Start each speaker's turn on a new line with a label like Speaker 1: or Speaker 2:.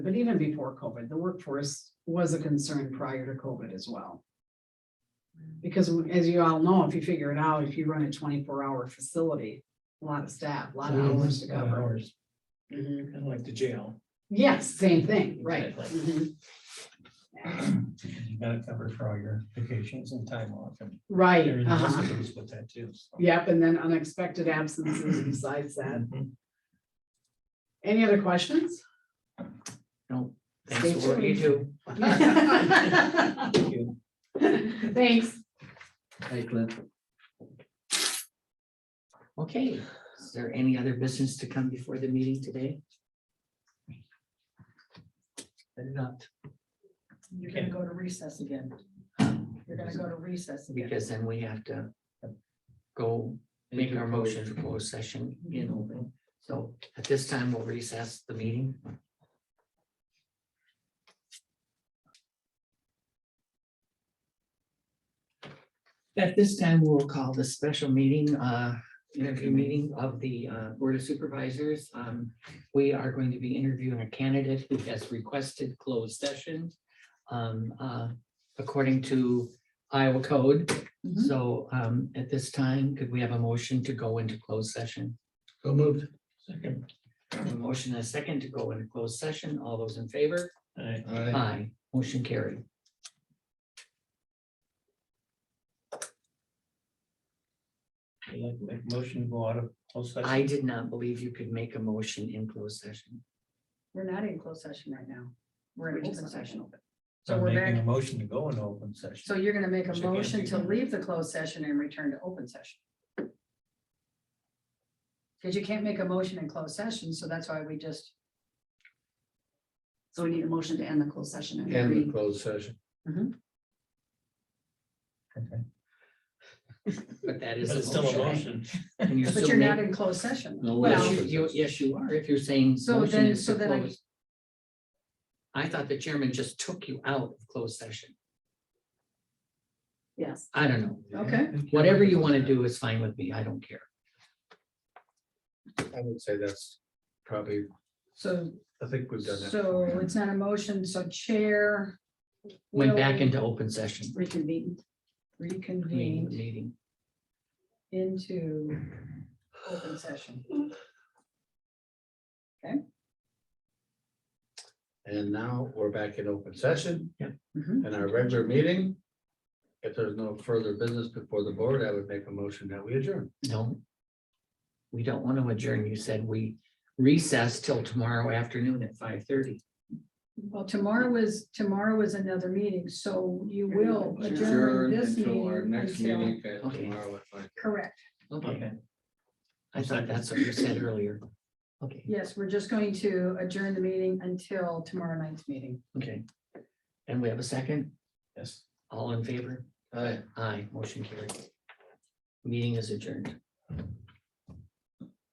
Speaker 1: But even before COVID, the workforce was a concern prior to COVID as well. Because as you all know, if you figure it out, if you run a twenty-four hour facility, a lot of staff, a lot of hours to
Speaker 2: Lot of
Speaker 1: cover.
Speaker 2: hours,
Speaker 3: Mm-hmm.
Speaker 1: Mhm.
Speaker 2: Kind of like the jail.
Speaker 1: Yes, same thing, right.
Speaker 2: Exactly.
Speaker 1: Mhm.
Speaker 2: You gotta cover for all your vacations and time off and
Speaker 1: Right,
Speaker 2: everything else
Speaker 1: uh-huh.
Speaker 2: that goes with that too. so.
Speaker 1: Yep, and then unexpected absences besides that.
Speaker 2: Mhm.
Speaker 1: Any other questions?
Speaker 2: No,
Speaker 1: Stay
Speaker 2: thanks for what you do.
Speaker 1: tuned. Thanks.
Speaker 2: Thank you.
Speaker 4: Right, Glenn. Okay, is there any other business to come before the meeting today? Better not,
Speaker 3: You're gonna go to recess again. You're gonna go to recess again.
Speaker 4: because then we have to uh, go make our motion for closed session in open. So at this time, we'll recess the meeting. At this time, we'll call the special meeting, uh, interview meeting of the uh, Board of Supervisors. Um, we are going to be interviewing a candidate who has requested closed session. um, uh, according to Iowa code.
Speaker 3: Mhm.
Speaker 4: So um, at this time, could we have a motion to go into closed session?
Speaker 2: Go moved. Second.
Speaker 4: A motion and a second to go into closed session. All those in favor?
Speaker 2: All right.
Speaker 4: Aye. Motion carried.
Speaker 2: I'd like to make a Motion to go out of closed session.
Speaker 4: I did not believe you could make a motion in closed session.
Speaker 3: We're not in closed session right now. We're in open session.
Speaker 2: So
Speaker 3: So
Speaker 2: I'm
Speaker 3: we're
Speaker 2: making a
Speaker 3: back,
Speaker 2: motion to go in open
Speaker 3: so
Speaker 2: session.
Speaker 3: you're gonna make a
Speaker 2: Which I can't
Speaker 3: motion
Speaker 2: do
Speaker 3: to
Speaker 2: now.
Speaker 3: leave the closed session and return to open session. Cause you can't make a motion in closed session, so that's why we just. So we need a motion to end the closed session. and
Speaker 5: End the
Speaker 3: agree.
Speaker 5: closed session.
Speaker 2: Okay.
Speaker 4: But that
Speaker 2: But
Speaker 4: is.
Speaker 2: it's still a
Speaker 4: motion.
Speaker 2: motion.
Speaker 4: And you're
Speaker 3: But
Speaker 4: still
Speaker 3: you're not
Speaker 4: making.
Speaker 3: in closed session.
Speaker 5: No, we're
Speaker 3: Well,
Speaker 5: not.
Speaker 4: Yes, you- you- yes, you are. If you're saying.
Speaker 3: So
Speaker 4: motion
Speaker 3: then-
Speaker 4: is to
Speaker 3: so then I-
Speaker 4: close. I thought the chairman just took you out of closed session.
Speaker 3: Yes.
Speaker 4: I don't know.
Speaker 3: Okay.
Speaker 4: Whatever you want to do is fine with me. I don't care.
Speaker 5: I would say that's probably,
Speaker 3: So,
Speaker 5: I think we've done that.
Speaker 3: so it's not a motion, so chair.
Speaker 4: Went
Speaker 3: will
Speaker 4: back into open session.
Speaker 3: Reconvened.
Speaker 4: Meeting,
Speaker 3: Reconvened
Speaker 4: meeting.
Speaker 3: into open session.
Speaker 5: And now we're back in open session.
Speaker 4: Yeah.
Speaker 3: Mhm.
Speaker 5: And our regular meeting. If there's no further business before the board, I would make a motion that we adjourn.
Speaker 4: No. We don't want to adjourn. You said we recess till tomorrow afternoon at five thirty.
Speaker 3: Well, tomorrow is, tomorrow is another meeting, so you will adjourn this
Speaker 5: until Our
Speaker 3: meeting.
Speaker 5: next
Speaker 3: until-
Speaker 5: meeting uh,
Speaker 4: Okay.
Speaker 5: tomorrow at five.
Speaker 3: Correct.
Speaker 4: Okay,
Speaker 2: Okay.
Speaker 4: I thought that's what you said earlier. Okay,
Speaker 3: Yes, we're just going to adjourn the meeting until tomorrow night's meeting.
Speaker 4: okay. And we have a second?
Speaker 2: Yes.
Speaker 4: All in favor?
Speaker 5: Aye.
Speaker 4: Aye, motion carried. Meeting is adjourned.